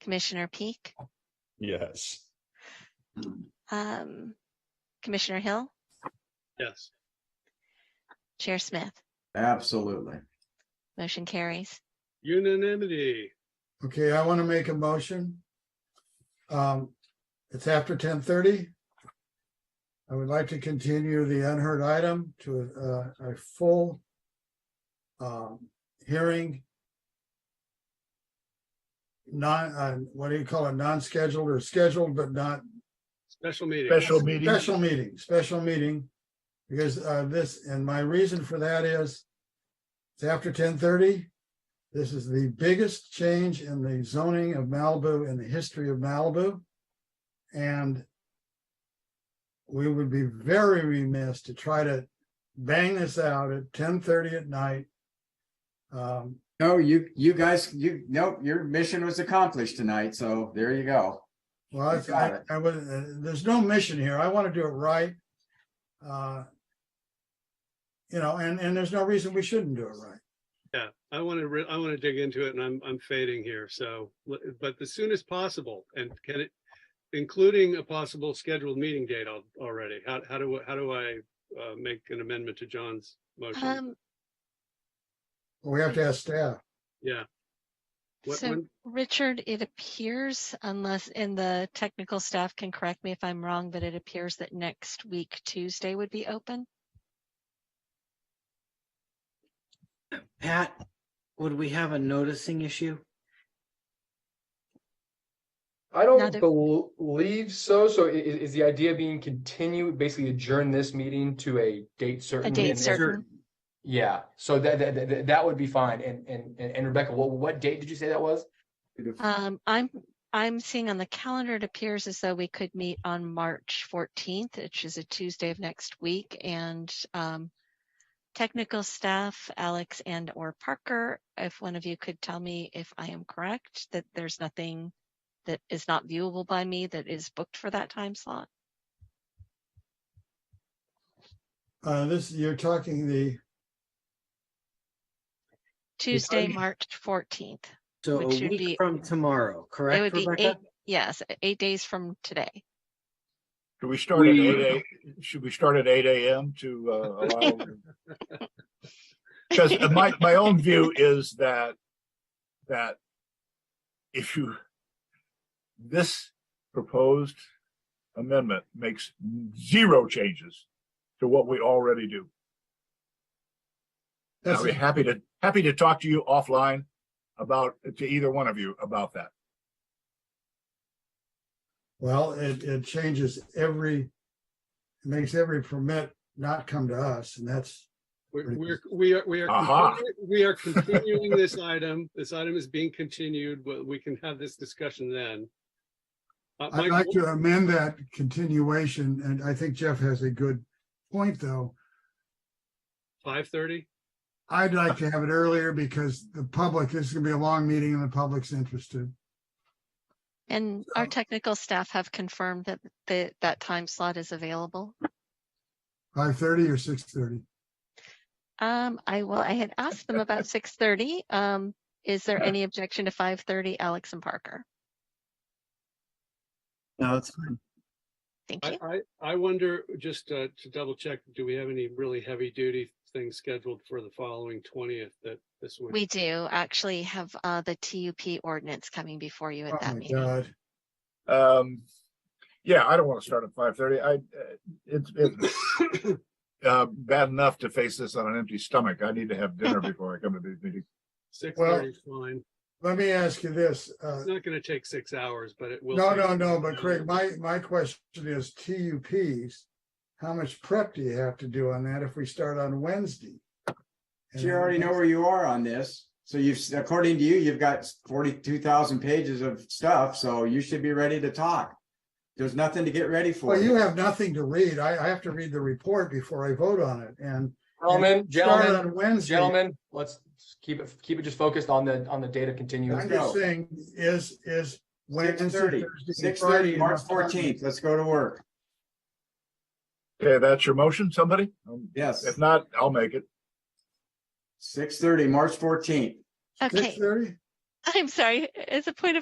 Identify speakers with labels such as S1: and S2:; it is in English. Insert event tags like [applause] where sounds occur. S1: Commissioner Peak,
S2: Yes.
S1: um, Commissioner Hill,
S3: Yes.
S1: Chair Smith.
S4: Absolutely.
S1: Motion carries.
S3: Unanimity.
S5: Okay, I want to make a motion. Um, it's after ten thirty. I would like to continue the unheard item to uh, a, a full um, hearing. Non, uh, what do you call it? Non-scheduled or scheduled, but not
S3: Special meeting.
S6: Special meeting.
S5: Special meeting, special meeting, because uh this, and my reason for that is it's after ten thirty. This is the biggest change in the zoning of Malibu in the history of Malibu. And we would be very remiss to try to bang this out at ten thirty at night. Um,
S4: No, you, you guys, you, nope, your mission was accomplished tonight, so there you go.
S5: Well,
S4: You
S5: I-
S4: got
S5: I,
S4: it.
S5: I was, uh, there's no mission here. I want to do it right. Uh You know, and, and there's no reason we shouldn't do it right.
S3: Yeah, I want to, I want to dig into it and I'm, I'm fading here. So, l- but the soonest possible and can it, including a possible scheduled meeting date al- already? How, how do, how do I uh, make an amendment to John's motion?
S1: Um,
S5: But We have to ask staff.
S3: Yeah. What-
S1: so
S3: when-
S1: Richard, it appears unless, and the technical staff can correct me if I'm wrong, but it appears that next week, Tuesday would be open.
S7: Pat, would we have a noticing issue?
S8: I don't
S1: Another-
S8: believe so. So i- i- is the idea being continue, basically adjourn this meeting to a date certain?
S1: date
S8: and-
S1: certain.
S8: Yeah, so that, that, that, that would be fine. And, and, and Rebecca, what, what date did you say that was?
S1: Um, I'm, I'm seeing on the calendar, it appears as though we could meet on March fourteenth, which is a Tuesday of next week, and um. Technical staff, Alex and or Parker, if one of you could tell me if I am correct, that there's nothing. That is not viewable by me that is booked for that time slot.
S5: Uh This, you're talking the,
S1: Tuesday,
S7: Okay.
S1: March fourteenth.
S7: So a
S1: Which should be-
S7: week from tomorrow,
S1: It
S7: correct,
S1: would be eight,
S7: Rebecca?
S1: yes, eight days from today.
S6: Do we start at
S8: We-
S6: eight a, should we start at eight AM to, uh, allow? Because my, my own view is that, that if you, this proposed amendment makes zero changes to what we already do. And
S5: that's
S6: I'll be happy to, happy to talk to you offline about, to either one of you about that.
S5: well, it, it changes every, it makes every permit not come to us, and that's,
S3: We're, we're- we are, we are,
S6: Aha.
S3: continuing- we are continuing this item. This item is being continued. Well, We can have this discussion then. Uh,
S5: I'd
S3: Mike,
S5: like to amend that continuation, and I think Jeff has a good point, though.
S3: Five thirty?
S5: I'd like to have it earlier because the public, this is gonna be a long meeting and the public's interested.
S1: And our
S5: So-
S1: technical staff have confirmed that the, that time slot is available.
S5: Five thirty or six thirty?
S1: Um, I will, I had asked them
S5: [laughs]
S1: about six thirty. Um, is there any objection to five thirty, Alex and Parker?
S7: No, it's fine.
S1: Thank you.
S3: I, I, I wonder, just uh, to double check, do we have any really heavy duty things scheduled for the following twentieth that this would?
S1: We do actually have, uh, the TUP ordinance coming before you
S5: Oh
S1: at that [laughs]
S5: my
S1: meeting.
S5: God.
S6: Um, yeah, I don't want to start at five thirty. I, uh, it's, it's uh, bad enough to face this on an empty stomach. I need to have dinner before I come to these meetings.
S3: Six
S5: well-
S3: thirty is fine.
S5: Let me ask you this, uh,
S3: It's not gonna take six hours, but it will.
S5: no,
S3: take-
S5: no, no, but Craig, my, my question is TUPs. How much prep do you have to do on that if we start on Wednesday? And
S4: You already know where you are on this. So you've, according to you, you've got forty-two thousand pages of stuff, so you should be ready to talk. There's nothing to get ready for.
S5: Well, you have nothing to read. I, I have to read the report before I vote on it and.
S8: Gentlemen,
S5: start
S8: gentlemen,
S5: on Wednesday.
S8: gentlemen, let's keep it, keep it just focused on the, on the date of continuance.
S5: I'm just saying is, is Wednesday,
S4: Six
S5: Thursday,
S4: thirty,
S5: and
S4: six
S5: Friday
S4: thirty, March
S5: enough time?
S4: fourteenth. Let's go to work.
S6: Okay, that's your motion, somebody? Um,
S4: Yes,
S6: If not, I'll make it.
S4: six thirty, March fourteenth.
S1: Okay,
S5: Six thirty?
S1: I'm sorry, as a point of